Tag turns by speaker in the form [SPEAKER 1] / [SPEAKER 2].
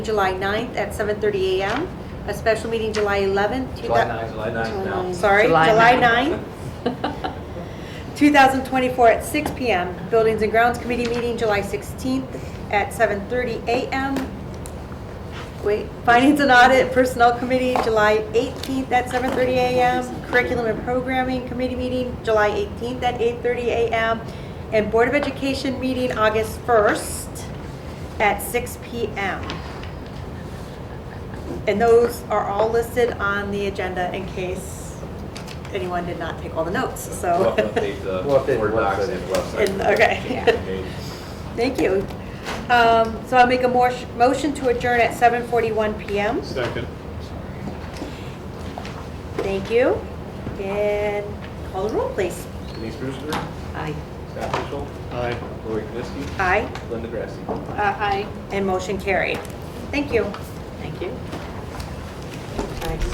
[SPEAKER 1] July 9th at 7:30 a.m., a special meeting July 11th. two
[SPEAKER 2] July
[SPEAKER 1] thou-
[SPEAKER 2] 9, July 9
[SPEAKER 1] July-
[SPEAKER 2] now.
[SPEAKER 1] Sorry,
[SPEAKER 3] July
[SPEAKER 1] July
[SPEAKER 3] 9th.
[SPEAKER 1] 9th, 2024 at 6 p.m. Buildings and Grounds Committee meeting July 16th at 7:30 a.m. Wait, Finance and Audit Personnel Committee, July 18th at 7:30 a.m. Curriculum and Programming Committee meeting, July 18th at 8:30 a.m. And Board of Education meeting, August 1st at 6 p.m. And those are all listed on the agenda in case anyone did not take all the notes,
[SPEAKER 2] We'll
[SPEAKER 1] so.
[SPEAKER 2] update the
[SPEAKER 4] We'll update the
[SPEAKER 2] Word docs
[SPEAKER 4] website.
[SPEAKER 2] and website.
[SPEAKER 1] And- Okay, thank you. Um, So I'll make a mor- motion to adjourn at 7:41 PM.
[SPEAKER 5] Second.
[SPEAKER 1] Thank you. And call the roll, please.
[SPEAKER 2] Denise Brewster,
[SPEAKER 3] Aye.
[SPEAKER 2] Scott Mitchell,
[SPEAKER 5] Aye.
[SPEAKER 2] Lori Knessky,
[SPEAKER 1] Aye,
[SPEAKER 2] Linda Grassi.
[SPEAKER 3] Aye.
[SPEAKER 1] and motion carried. Thank you.
[SPEAKER 3] Thank you.